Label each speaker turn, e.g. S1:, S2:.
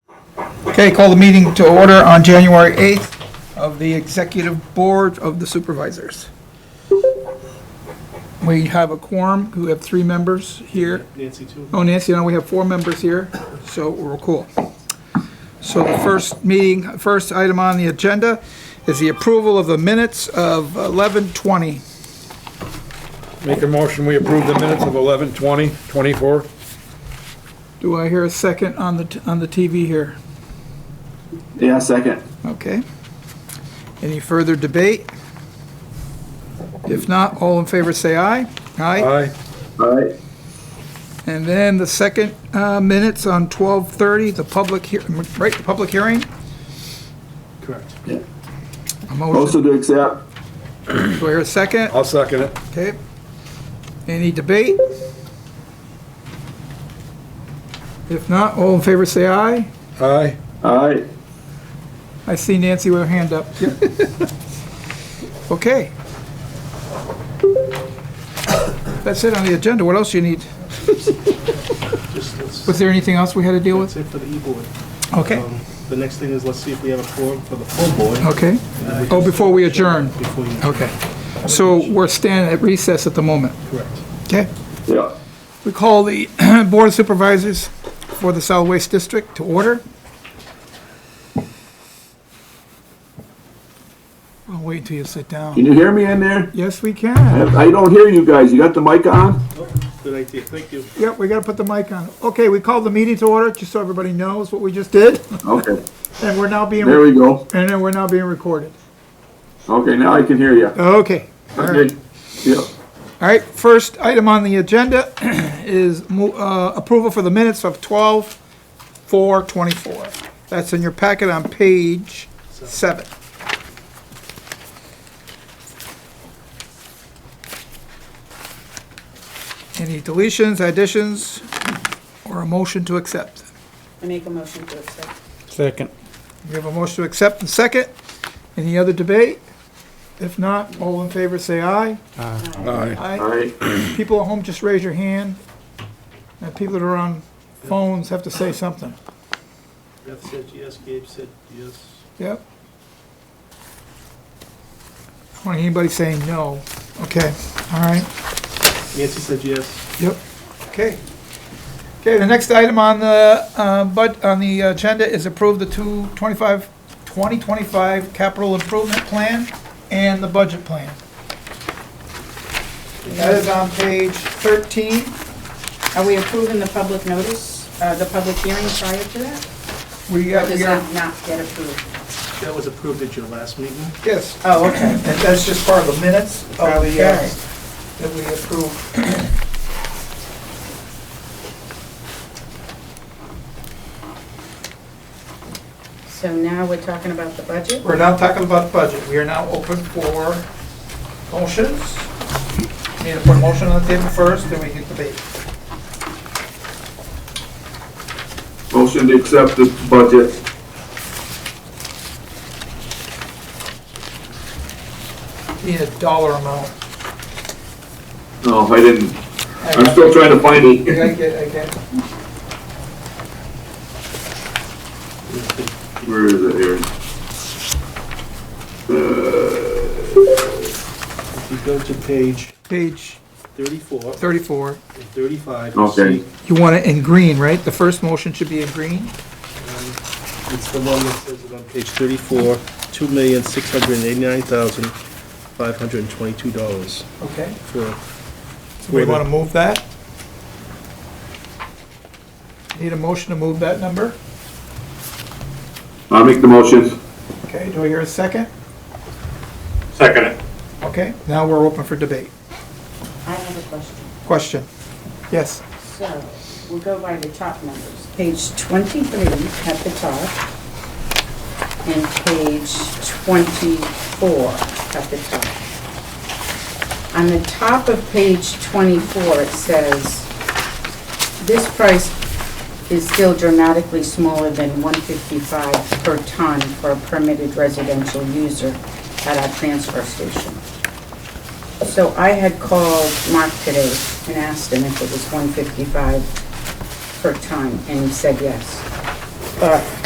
S1: Okay, call the meeting to order on January 8th of the Executive Board of the Supervisors. We have a quorum, we have three members here.
S2: Nancy too.
S1: Oh, Nancy, no, we have four members here, so we're cool. So the first meeting, first item on the agenda is the approval of the minutes of 11:20.
S3: Make a motion, we approve the minutes of 11:20:24.
S1: Do I hear a second on the, t- on the TV here?
S4: Yeah, second.
S1: Okay. Any further debate? If not, all in favor say aye. Aye.
S3: Aye.
S4: All right.
S1: And then the second uh, minutes on 12:30, the public, hea- right, the public hearing?
S2: Correct.
S1: A motion.
S4: Motion to accept.
S1: Do I hear a second?
S3: I'll second it.
S1: Okay. Any debate? If not, all in favor say aye.
S3: Aye.
S4: All right.
S1: I see Nancy with her hand up. Okay. That's it on the agenda. What else do you need?
S2: Just, let's,
S1: Was there anything else we had to deal
S2: that's
S1: with?
S2: it for the e-board.
S1: Okay,
S2: Um, The next thing is, let's see if we have a forum for the full board.
S1: okay. Oh, before we adjourn.
S2: Before you,
S1: Okay. So we're standing at recess at the moment.
S2: correct.
S1: Okay.
S4: Yeah.
S1: We call the Board of Supervisors for the Solid Waste District to order. I'll wait until you sit down.
S4: Can you hear me in there?
S1: Yes, we can.
S4: I don't hear you guys. You got the mic on?
S2: Oh, Good idea, thank you.
S1: Yep, we gotta put the mic on. Okay, we called the meeting to order, just so everybody knows what we just did,
S4: Okay.
S1: and we're now being,
S4: There
S1: and
S4: we go.
S1: then we're now being recorded.
S4: Okay, now I can hear you.
S1: Okay. all right.
S4: Okay. Yeah.
S1: All right, first item on the agenda is mo- uh, approval for the minutes of 12/4/24. That's in your packet on page seven. Any deletions, additions, or a motion to accept?
S5: I make a motion to accept.
S3: Second.
S1: We have a motion to accept and second. Any other debate? If not, all in favor, say aye.
S3: Aye.
S4: All right.
S1: people at home, just raise your hand. And people that are on phones have to say something.
S2: Beth said yes, Gabe said yes.
S1: Yep. I don't want anybody saying no. Okay, all right,
S2: Nancy said yes.
S1: yep, okay. Okay, the next item on the, uh, bud on the agenda is approve the two twenty-five, twenty twenty-five capital improvement plan and the budget plan. That is on page thirteen.
S5: Are we approving the public notice, uh, the public hearing prior to that?
S1: We
S5: Or
S1: got,
S5: does
S1: we are,
S5: that not get approved?
S2: That was approved at your last meeting.
S1: yes,
S5: Oh, okay.
S1: And that's just part of the minutes of the, uh,
S5: Okay.
S1: that we approved.
S5: So now we're talking about the budget?
S1: We're now talking about budget. We are now open for motions. Need to put a motion on the table first, then we can debate.
S4: Motion to accept the budget.
S1: Need a dollar amount.
S4: No, I didn't.
S1: I
S4: I'm still trying to find
S1: I
S4: it.
S1: get, I get.
S4: Where is it here?
S2: If you go to page
S1: Page
S2: thirty-four
S1: 34.
S2: and thirty-five, you
S4: Okay.
S2: see,
S1: You want it in green, right? The first motion should be in green?
S2: it's the one that says it on page thirty-four, two million, six hundred and eighty-nine thousand, five hundred and twenty-two dollars
S1: Okay.
S2: for
S1: So we want to move that? Need a motion to move that number?
S4: I'll make the motion.
S1: Okay, do I hear a second?
S4: Second it.
S1: Okay, now we're open for debate.
S5: I have a question.
S1: Question? Yes.
S5: So we'll go by the top numbers. Page 23 at the top and page 24 at the top. On the top of page 24, it says, "This price is still dramatically smaller than 155 per ton for a permitted residential user at our transfer station." So I had called Mark today and asked him if it was 155 per ton, and he said yes. But